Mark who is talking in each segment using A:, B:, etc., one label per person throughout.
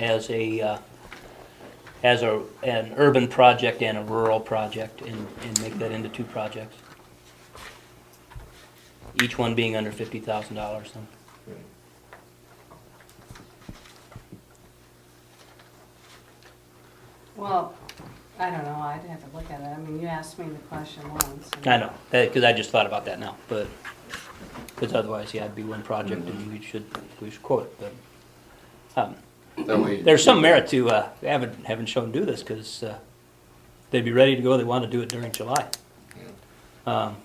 A: as a, uh, as a, an urban project and a rural project and, and make that into two projects. Each one being under fifty thousand dollars then.
B: Well, I don't know, I'd have to look at it, I mean, you asked me the question once. and-
A: I know, because I just thought about that now, but, because otherwise, yeah, it'd be one project and we should, we should quote it, but. um,
C: That way-
A: There's some merit to, uh, having, having Shown do this, because, uh, they'd be ready to go, they want to do it during July. Um,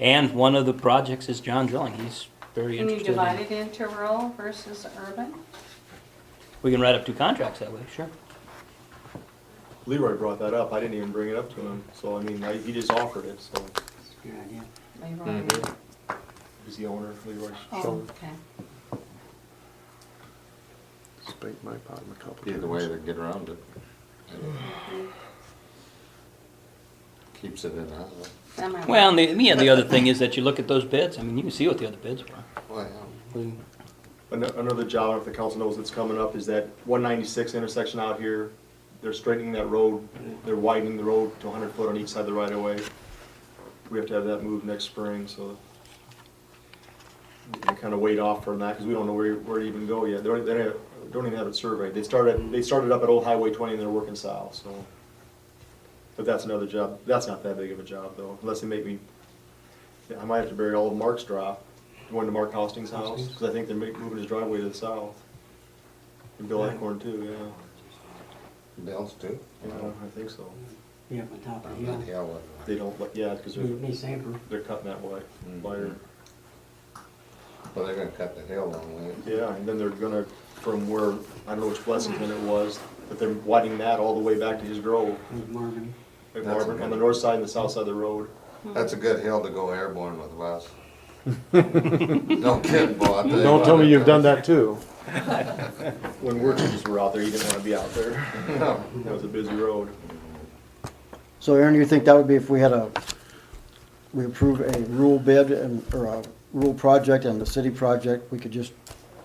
A: And one of the projects is John Drilling, he's very
B: Can you
A: interested.
B: divide
A: in-
B: it into rural versus urban?
A: We can write up two contracts that way, sure.
D: Leroy brought that up, I didn't even bring it up to him, so I mean, I, he just offered it, so,
B: Leroy?
E: Mm-hmm,
D: he's the owner, Leroy.
B: Oh, okay.
F: Spake my pot in a couple
C: Either way,
F: times.
C: they get around it. Keeps it in house.
B: That might
A: Well,
B: work.
A: and the, yeah, the other thing is that you look at those bids, I mean, you can see what the other bids were.
C: Well,
A: We-
D: An- Another job, if the council knows it's coming up, is that one ninety-six intersection out here, they're straightening that road, they're widening the road to hundred foot on each side of the right of way. We have to have that moved next spring, so we kind of wait off from that, because we don't know where, where to even go yet. They don't, they don't- don't even have it surveyed. They started, they started up at Old Highway twenty and they're working south, so. But that's another job, that's not that big of a job though, unless they make me, I might have to bury all of Mark's drop, going to Mark Hosting's house, because I think they're ma- moving his driveway to the south. And Bill Acorn too, yeah.
C: Bills too?
D: Yeah, I think so.
G: Yeah, on top of the
C: Yeah,
G: hill.
C: yeah, well,
D: They don't, like yeah, because
G: Move
D: they're,
G: me sample.
D: they're cutting that way,
C: Mm-hmm.
D: wider.
C: Well, they're gonna cut the hill on way.
D: Yeah, and then they're gonna, from where, I don't know which Blessington it was, but they're widening that all the way back to his grove.
G: There's Marvin.
D: Like
C: That's
D: Marvin, on
C: good.
D: the north side and the south side of the road.
C: That's a good hill to go airborne with, Wes. Don't kid, boy. I'll tell you
F: Don't
C: what,
F: tell me
C: it
F: you've done
C: does.
F: that too.
D: When we're kids were out there, you didn't wanna be out there.
C: No.
D: That was a busy road.
H: So Aaron, you think that would be if we had a, we approve a rural bid and, or a rural project and the city project, we could just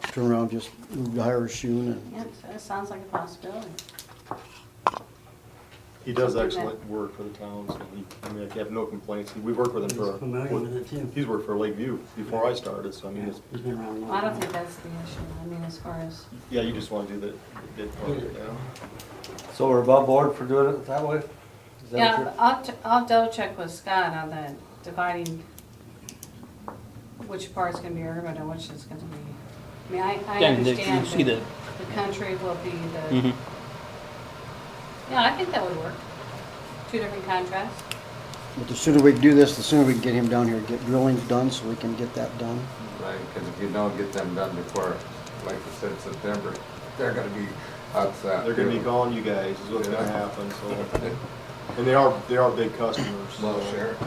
H: turn around, just move to hire a shoe and,
B: Yeah, so it sounds like a possibility.
D: He does excellent work for the town, so he, I mean, I have no complaints. We've worked with him
G: He's familiar with
D: for,
G: it too.
D: he's worked for Lakeview before I started, so I mean,
G: Yeah,
D: it's,
G: He's been around a long
B: Well, I don't
G: time.
B: think that's the issue, I mean, as far as,
D: yeah, you just wanna do the, the bid part of it now.
E: So we're above board for doing it that way? Is that what
B: yeah,
E: you're-
B: but I'll, t- I'll double check with Scott on the dividing which part's gonna be urban and which is gonna be, I mean, I, I
A: Then you
B: understand
A: see
B: that
A: the-
B: the country will be the,
A: mhm.
B: yeah, I think that would work. Two different contracts.
H: but the sooner we can do this, the sooner we can get him down here, get drillings done so we can get that done.
C: Right, because if you don't get them done before, like you said, September, they're gonna be outside.
D: They're gonna be calling you guys, is what's gonna happen, so. And they are, they are big customers, so.
C: Well, sure.
B: I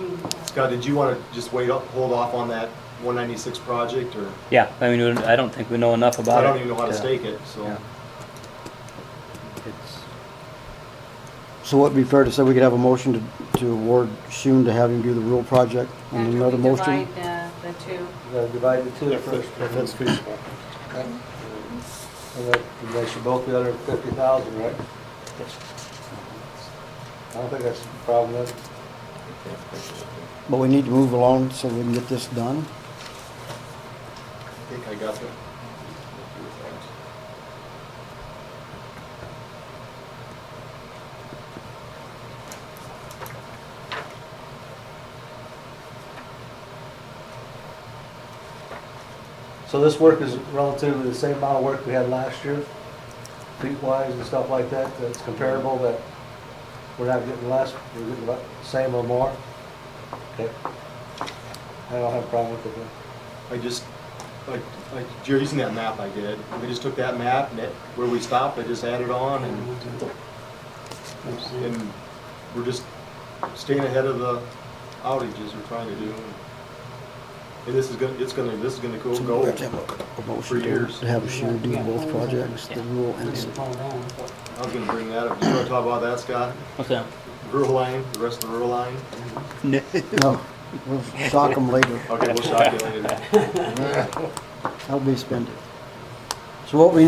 B: mean, uh,
D: Scott, did you wanna just wait up, hold off on that one ninety-six project, or?
A: Yeah, I mean, I don't think we know enough about
D: I
A: it.
D: don't even know how to stake it, so.
A: yeah. It's-
H: So it'd be fair to say we could have a motion to, to award Shun to have him do the rural project and
B: after we
H: another motion?
B: Divide the, the two,
E: You gotta divide the two first.
F: If that's feasible.
E: And that- and they should both be under fifty thousand, right? I don't think that's a problem, that's,
H: But we need to move along so we can get this done.
D: I think I got that.
E: so this work is relatively the same amount of work we had last year, feet-wise and stuff like that, that's comparable, that we're not getting less, we're getting about the same or more? Okay. I don't have a problem with it then.
D: I just, like, like, you're using that map I did, I just took that map and it, where we stopped, I just added on and,
G: Let's see.
D: and we're just staying ahead of the outages we're trying to do. And this is gonna, it's gonna, this is gonna go,
H: So
D: go.
H: we have to have a- a motion to
D: years.
H: to have Shun do both projects, the rural and the
G: Let's
H: city.
G: fall down.
D: I was gonna bring that up, you wanna talk about that, Scott?
A: What's that?
D: Rural line, the rest of the rural line?
H: No, we'll shock them later.
D: Okay, we'll shock you later.
H: That'll be spending. So what we need